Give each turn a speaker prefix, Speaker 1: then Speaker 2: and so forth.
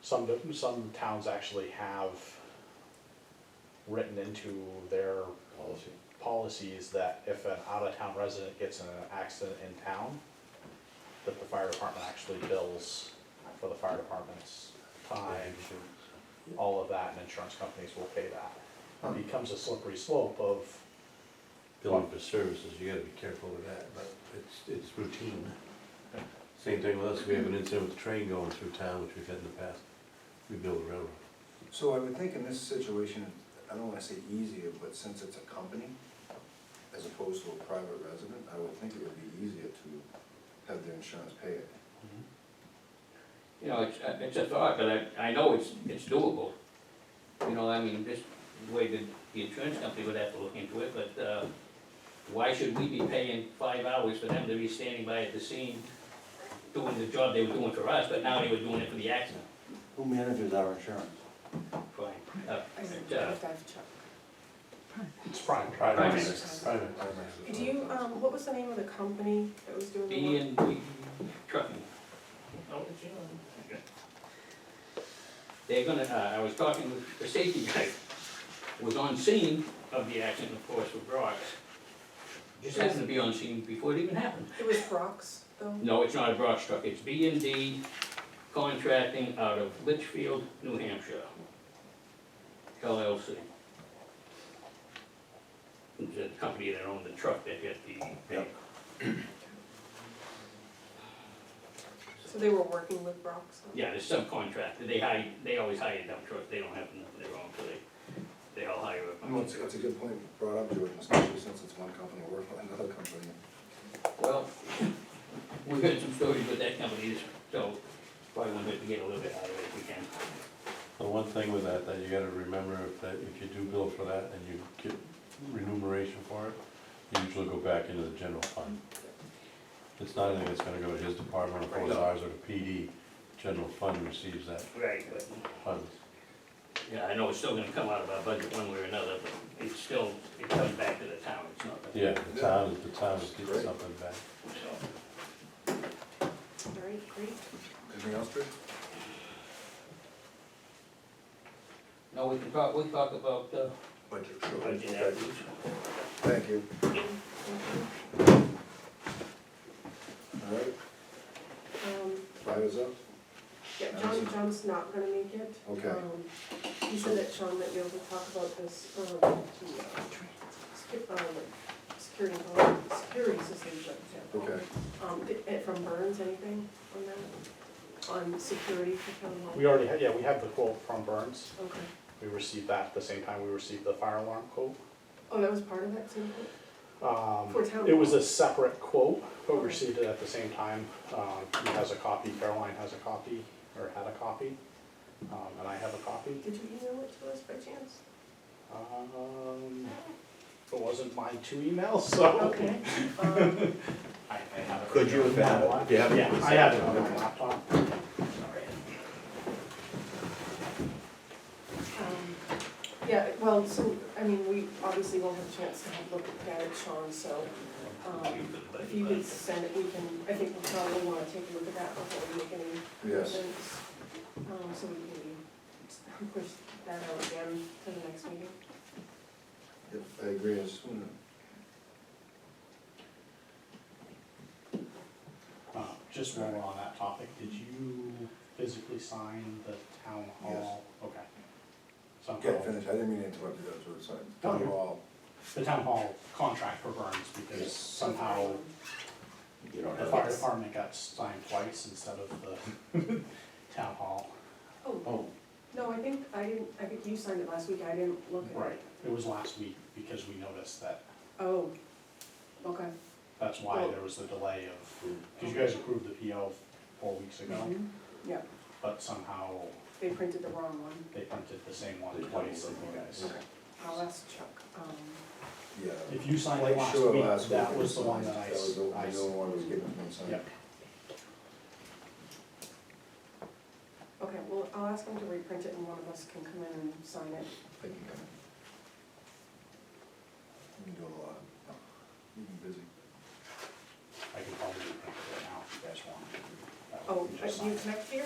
Speaker 1: Some, some towns actually have written into their
Speaker 2: policy.
Speaker 1: policies that if an out-of-town resident gets in an accident in town, that the fire department actually bills for the fire department's time, all of that, and insurance companies will pay that. It becomes a slippery slope of,
Speaker 2: Billing for services, you gotta be careful with that, but it's, it's routine. Same thing with us, we have an incident with the train going through town, which we've had in the past, we build a railroad.
Speaker 3: So I would think in this situation, I don't wanna say easier, but since it's a company as opposed to a private resident, I would think it would be easier to have the insurance pay it.
Speaker 4: You know, it's, uh, it's a thought, but I, I know it's, it's doable. You know, I mean, this, the way the, the insurance company would have to look into it, but, uh, why should we be paying five hours for them to be standing by at the scene doing the job they were doing for us, but now they were doing it for the accident?
Speaker 5: Who manages our insurance?
Speaker 4: Fine, uh,
Speaker 6: I said,
Speaker 4: uh,
Speaker 6: I've Chuck.
Speaker 1: it's prime.
Speaker 6: Primaries.
Speaker 2: Private.
Speaker 6: Do you, um, what was the name of the company that was doing the
Speaker 4: B
Speaker 6: work?
Speaker 4: and B trucking. They're gonna, uh, I was talking with the safety guy, was on scene of the accident, of course, with Brock. Just happened to be on scene before it even happened.
Speaker 6: It was Brock's, though?
Speaker 4: No, it's not a Brock truck, it's B and D Contracting out of Litchfield, New Hampshire. LLC. It's the company that owned the truck that hit the,
Speaker 5: Yep.
Speaker 6: So they were working with Brock's? huh?
Speaker 4: Yeah, the subcontractor, they hire, they always hire dump trucks, they don't have nothing their own, so they, they all hire a
Speaker 3: No, it's,
Speaker 4: bunch
Speaker 3: it's a good point brought up, Jordan, especially since it's one company working with another company.
Speaker 4: Well, we heard some stories with that company, so probably wanted to get a little bit out of it if we can.
Speaker 2: The one thing with that, that you gotta remember, if that, if you do bill for that and you get remuneration for it, you usually go back into the general fund. It's not anything that's gonna go to his department or to ours or to PD, general fund receives that
Speaker 4: Right. But,
Speaker 2: funds.
Speaker 4: yeah, I know it's still gonna come out of our budget one way or another, but it's still, it comes back to the town, it's not. the-
Speaker 2: Yeah, the town, the town is getting something back.
Speaker 4: So,
Speaker 6: All right, great.
Speaker 3: Anything else, Drew?
Speaker 4: No, we can talk, we talk about, uh,
Speaker 3: Budget.
Speaker 4: budget
Speaker 3: Okay.
Speaker 4: afterwards.
Speaker 3: Thank you.
Speaker 6: Thank you.
Speaker 3: All right,
Speaker 6: Um,
Speaker 3: five is up.
Speaker 6: yeah, John, John's not gonna make it.
Speaker 3: Okay.
Speaker 6: Um, He said that Sean might be able to talk about this, um, the, uh, secu- um, security, security system, for example.
Speaker 3: Okay,
Speaker 6: Um, it- it- from Burns, anything on that? On security for town hall?
Speaker 1: We already, had- yeah, we have the quote from Burns,
Speaker 6: Okay.
Speaker 1: we received that at the same time we received the fire alarm quote.
Speaker 6: Oh, that was part of that sample?
Speaker 1: Um,
Speaker 6: For town
Speaker 1: It was
Speaker 6: hall.
Speaker 1: a separate quote, but we
Speaker 6: Okay.
Speaker 1: received it at the same time. Um, He has a copy, Caroline has a copy, or had a copy, um, and I have a copy.
Speaker 6: Did you email it to us by chance?
Speaker 1: Um, It wasn't my two emails, so.
Speaker 6: Okay. Um,
Speaker 1: I- I have it
Speaker 5: Could you have had it? Do you have it?
Speaker 1: Yeah, I have it on my laptop.
Speaker 6: um, Yeah, well, so, I mean, we obviously won't have a chance to have a look at that at Sean, so um, if you could send it, we can, I think we'll probably want to take a look at that before we make any
Speaker 3: yes,
Speaker 6: decisions. Um, So we can maybe push that out again to the next meeting.
Speaker 3: Yep, I agree, as soon
Speaker 1: Uh, Just while we're on that topic, did you physically sign the town hall? Okay.
Speaker 3: get
Speaker 1: Somehow,
Speaker 3: finished, I didn't mean to interrupt you, Drew, sorry.
Speaker 1: No,
Speaker 3: Town
Speaker 1: you're-
Speaker 3: hall,
Speaker 1: the town hall contract for Burns, because
Speaker 3: Yes.
Speaker 1: somehow
Speaker 5: You don't
Speaker 1: The
Speaker 5: have,
Speaker 1: fire department got signed twice instead of the town hall.
Speaker 6: Oh,
Speaker 5: oh,
Speaker 6: no, I think, I didn't, I think you signed it last week, I didn't look at it.
Speaker 1: It was last week because we noticed that,
Speaker 6: Oh, okay.
Speaker 1: that's why there was the delay of,
Speaker 3: Mm.
Speaker 1: because you guys approved the PO four weeks ago,
Speaker 6: Mhm. Yeah,
Speaker 1: but somehow
Speaker 6: they printed the wrong one.
Speaker 1: they printed the same one twice and you guys.
Speaker 6: I'll ask Chuck. Um,
Speaker 3: yeah.
Speaker 1: If you signed it
Speaker 3: Lake Shore
Speaker 1: last week, that
Speaker 3: week
Speaker 1: was the one that I,
Speaker 3: That was
Speaker 1: s-
Speaker 3: the the
Speaker 1: I s-
Speaker 3: only one that was given from Sunday.
Speaker 1: Yep.
Speaker 6: Okay, well, I'll ask him to reprint it and one of us can come in and sign it.
Speaker 3: They can come in. You can do a lot. You've been busy.
Speaker 1: I could probably print it right now if you guys want. That way
Speaker 6: Oh,
Speaker 1: we
Speaker 6: uh,
Speaker 1: just
Speaker 6: do you
Speaker 1: sign it.
Speaker 6: connect here?